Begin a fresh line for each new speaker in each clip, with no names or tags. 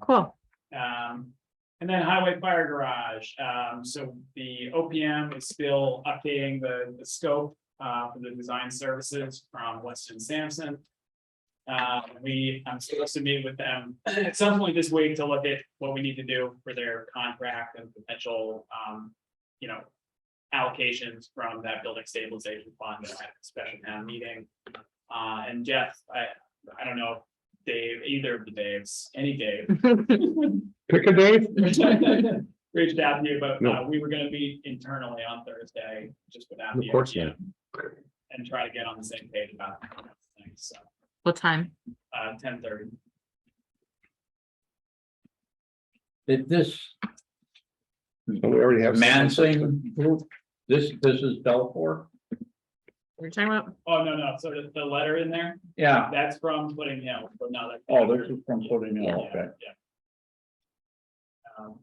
cool.
Um, and then highway fire garage, um, so the OPM is still updating the, the scope, uh, for the design services from Weston Sampson. Uh, we, I'm supposed to meet with them at some point this week to look at what we need to do for their contract and potential, um, you know, allocations from that building stabilization fund, that I had a special town meeting. Uh, and Jeff, I, I don't know, if Dave, either of the Daves, any Dave,
Pick a Dave.
Reached out to you, but uh,
No.
we were gonna meet internally on Thursday, just without.
Of
the
course
idea, And try to get on the same page about things, so,
What time?
uh, ten thirty.
Did this
We already have.
Mansing, group, this, this is Belcourt?
We're talking about,
Oh, no, no, so the, the letter in there,
Yeah,
that's from Footing Hill, but not like.
oh, this is from Footing Hill,
Yeah,
okay.
yeah. Um,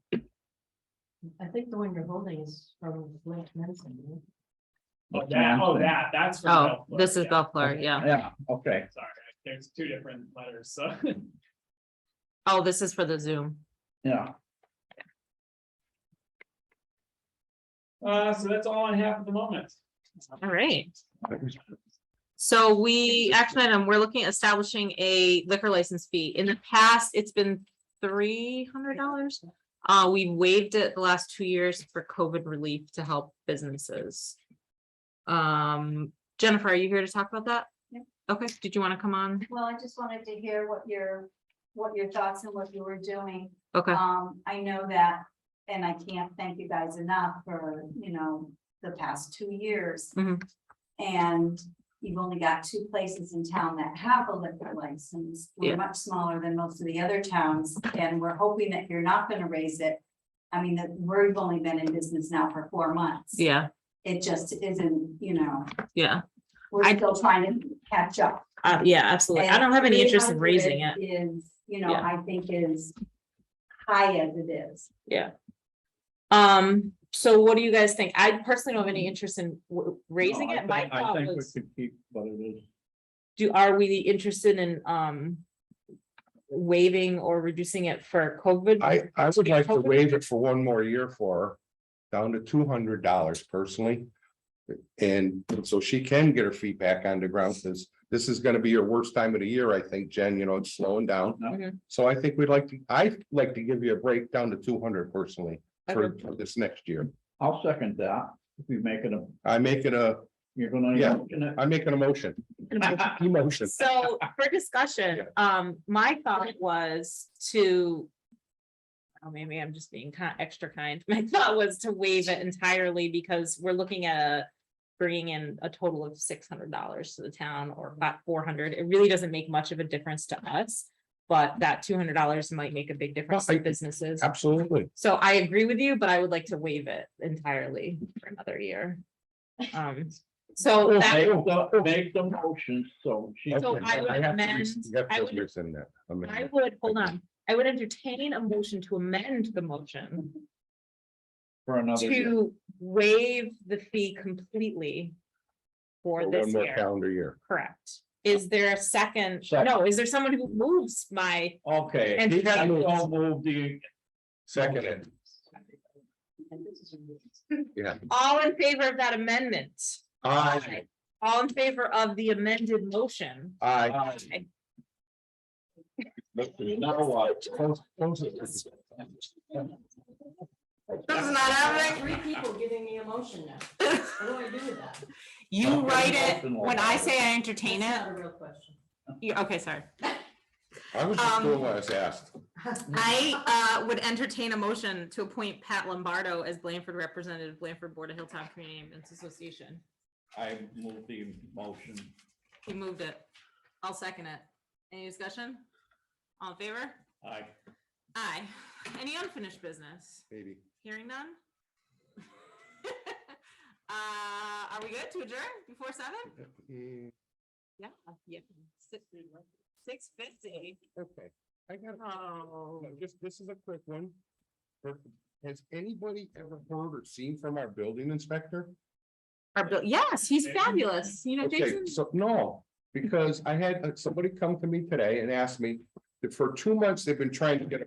I think the one you're holding is from Lake Manson.
Oh, that, oh, that, that's. from
oh,
Bellflower,
this is
yeah.
Bellflower, yeah.
Yeah, okay,
Sorry, there's two different letters, so.
Oh, this is for the Zoom.
yeah,
Uh, so that's all I have at the moment.
All right. So we, action item, we're looking at establishing a liquor license fee. In the past, it's been three hundred dollars. Uh, we waived it the last two years for COVID relief to help businesses. Um, Jennifer, are you here to talk about that?
Yeah.
Okay, did you want to come on?
Well, I just wanted to hear what your, what your thoughts and what you were doing.
Okay,
Um, I know that, and I can't thank you guys enough for, you know, the past two years.
Mhm.
And you've only got two places in town that have a liquor license.
Yeah.
We're much smaller than most of the other towns, and we're hoping that you're not gonna raise it. I mean, that we've only been in business now for four months.
yeah,
It just isn't, you know,
yeah,
we're
I-
still trying to catch up.
uh, yeah, absolutely. I
And
don't have any interest in raising it.
300 Is, you know,
Yeah.
I think is high as it is.
Yeah. Um, so what do you guys think? I personally don't have any interest in w- raising
No, I
it. My
think- I
thought
think we
was,
could keep what it is.
do, are we interested in, um, waiving or reducing it for COVID?
I, I would like to waive it for one more year for her, down to two hundred dollars personally. And so she can get her feet back on the ground, because this is gonna be your worst time of the year, I think, Jen, you know, it's slowing down.
Mhm.
So I think we'd like to, I'd like to give you a break down to two hundred personally for,
Okay.
for this next year.
I'll second that, if you make it a,
I make it a,
you're gonna.
Yeah.
motion it?
I'm making a motion. Emotion.
So for discussion, um, my thought was to. Oh, maybe I'm just being kind, extra kind. My thought was to waive it entirely because we're looking at. Bringing in a total of six hundred dollars to the town or about four hundred. It really doesn't make much of a difference to us. But that two hundred dollars might make a big difference
I-
to businesses.
Absolutely.
So I agree with you, but I would like to waive it entirely for another year. Um, so that
Make the, make the motion, so she.
So
Okay.
I would
have to
amend-
res- you have to
I would-
rescind that.
I
Amend.
would, hold on, I would entertain a motion to amend the motion
For another year.
to waive the fee completely
For
for
One
this
more
year,
calendar year.
correct? Is there a second? No,
Second.
is there someone who moves my,
Okay.
And-
I so move the-
Seconded. Yeah.
all in favor of that amendment?
Aye.
All in favor of the amended motion?
Aye.
uh,
Now what? Close- close it.
Doesn't matter.
Three people giving me a motion now. What do I do with that?
You write it,
Motion
when I say I entertain
That's
it,
not a real question.
you, okay, sorry.
I was just
Um,
doing what I was asked.
I uh would entertain a motion to appoint Pat Lombardo as Blanford Representative, Blanford Board of Hilltop Community Ambulance Association.
I move the motion.
He moved it. I'll second it. Any discussion? All in favor?
I
Aye. Any unfinished business?
Maybe.
Hearing none? Uh, are we good to adjourn before seven?
Mm,
Yeah, yeah. Six fifty.
Okay, I got,
Oh.
just, this is a quick one. Har- Has anybody ever heard or seen from our building inspector?
Our bill, yes, he's
Jason?
fabulous. You know,
Okay,
Jason,
so, no, because I had uh, somebody come to me today and asked me, that for two months, they've been trying to get a